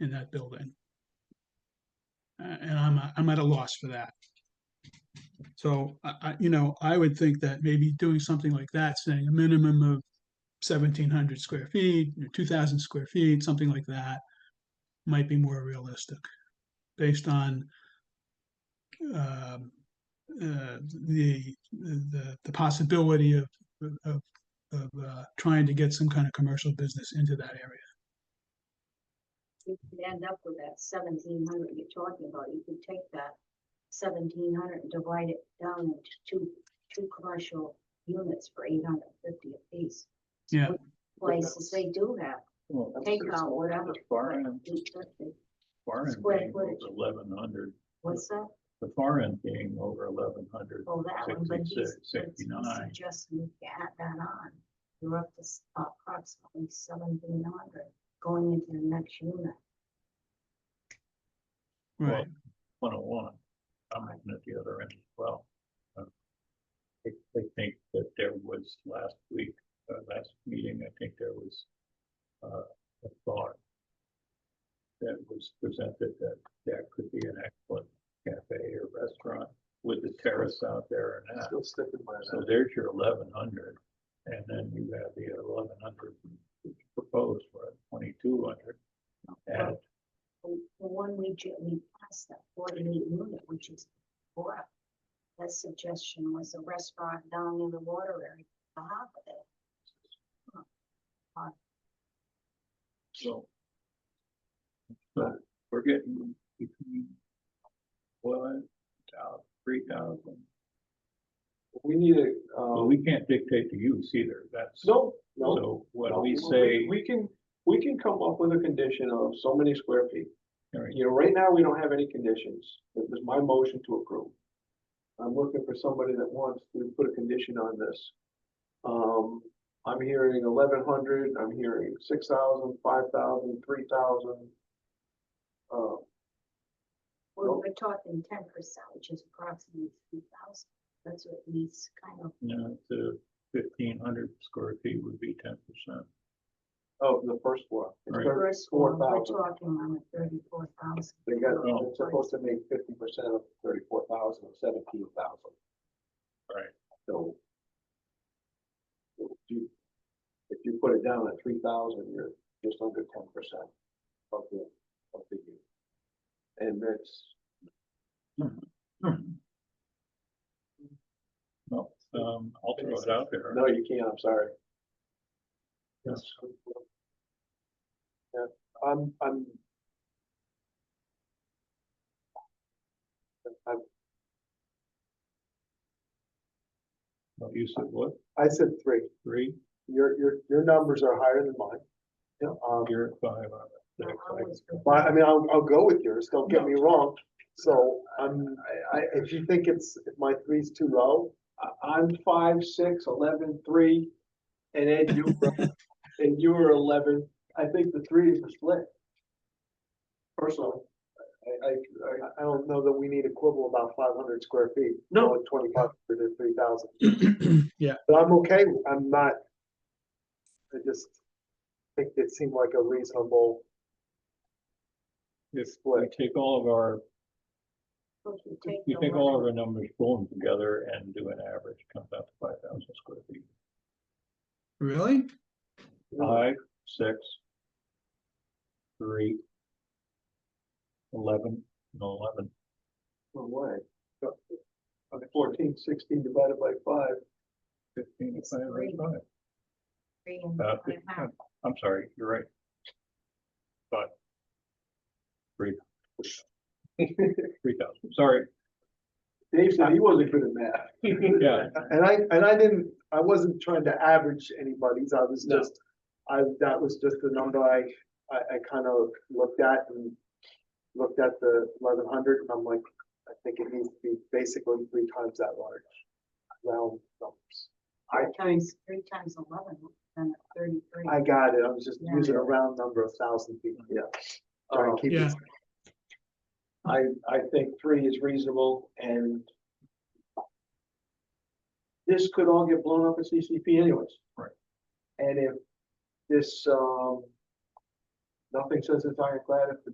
in that building. Uh, and I'm, a- I'm at a loss for that. So I, I, you know, I would think that maybe doing something like that, saying a minimum of seventeen hundred square feet, two thousand square feet, something like that, might be more realistic, based on um, uh, the, the, the possibility of, of, of uh, trying to get some kind of commercial business into that area. you could end up with that seventeen hundred you're talking about, you could take that seventeen hundred and divide it down into two, two commercial units for eight hundred and fifty apiece. Yeah. Which Places they do have, Well, that's take just- out whatever. that's Far end, Eight fifty, far end square being footage. over eleven hundred, what's that? the far end being over eleven hundred. Oh, that one, but he's, 66, but he's 69. suggesting you can add that on. You're up to s- approximately seventeen hundred going into the next unit. Right, One oh one, I'm looking at the other end as well. Uh, I I think that there was last week, uh, last meeting, I think there was uh, a thought that was presented that that could be an excellent cafe or restaurant with the terrace out there and that. Still sticking by So that. there's your eleven hundred, and then you have the eleven hundred proposed for twenty-two hundred. And The the one we ju- we passed that forty-eight unit, which is four. That suggestion was a restaurant down in the water area, the harbor there. so. So we're getting between one, three thousand, We need a, well, um, we can't dictate the use either, that's. no, no. So no, what we say, We can, we can come up with a condition of so many square feet. all right, You know, right now, we don't have any conditions. It was my motion to approve. I'm looking for somebody that wants to put a condition on this. Um, I'm hearing eleven hundred, I'm hearing six thousand, five thousand, three thousand. Uh, We're, Nope. we're talking ten percent, which is approximately three thousand. That's what needs kind of, you know, to fifteen hundred square feet would be ten percent. of the first floor. It's Right. thirty- first one, we're 4,000. talking on the thirty-four thousand. They got, Oh. it's supposed to make fifty percent of thirty-four thousand, seventeen thousand, Right. so. If you, if you put it down at three thousand, you're just under ten percent of the, of the unit. And that's, Well, um, I'll throw it out there. no, you can't, I'm sorry. Yes. Yeah, I'm, I'm. I'm Well, You said what, I said three. three? Your, your, your numbers are higher than mine. Um, You're at five out of six. I- Well, I mean, I'll, I'll go with yours, don't get me wrong, so, um, I, I, if you think it's, if my three's too low, I, I'm five, six, eleven, three, and Ed, you, were- and you were eleven, I think the three is a split. Personally, I, I, I- I don't know that we need a quibble about five hundred square feet. No. Twenty-five hundred to three thousand, yeah, but I'm okay, with- I'm not, I just think it seemed like a reasonable If we split. take all of our, You if we take all of our numbers, pull them together and do an average, comes out to five thousand square feet. really? Mm-hmm. Five, six, three, eleven, and eleven. One way. Okay, fourteen, sixteen divided by five, Fifteen, It's five, three. five. Three and Uh, one and a half. I'm sorry, you're right. But three, three thousand, sorry, Dave said he wasn't good at math. yeah, And I, and I didn't, I wasn't trying to average anybody's, I was No. just, I, that was just the number I, I, I kind of looked at and looked at the eleven hundred, and I'm like, I think it needs to be basically three times that large. Round numbers. I Four times, three times eleven, then thirty-three. I got it, I was just Yeah. using a round number of thousand feet, yeah. Trying to keep it Yeah. I, I think three is reasonable and this could all get blown up at CCP anyways. Right. And if this, um, nothing says it's ironclad, if the